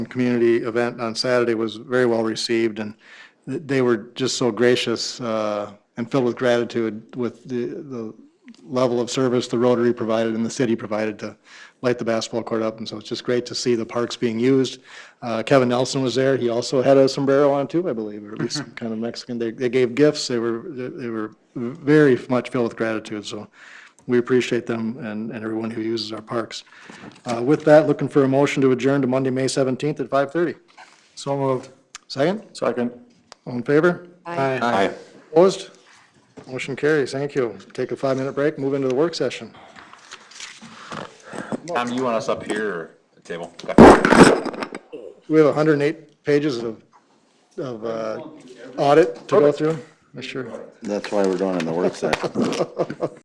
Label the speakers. Speaker 1: community event on Saturday was very well received, and th- they were just so gracious uh, and filled with gratitude with the, the level of service the Rotary provided and the city provided to light the basketball court up, and so it's just great to see the parks being used. Uh, Kevin Nelson was there, he also had a sombrero on too, I believe, or at least some kind of Mexican. They, they gave gifts, they were, they were very much filled with gratitude, so we appreciate them and, and everyone who uses our parks. Uh, With that, looking for a motion to adjourn to Monday, May 17th at 5:30. So moved. Second?
Speaker 2: Second.
Speaker 1: All in favor? Aye.
Speaker 2: Aye.
Speaker 1: Opposed? Motion carries. Thank you. Take a five-minute break, move into the work session.
Speaker 2: Tom, you want us up here or the table? Okay.
Speaker 1: We have 108 pages of, of uh, audit to go through. Sure.
Speaker 3: That's why we're doing it in the work session.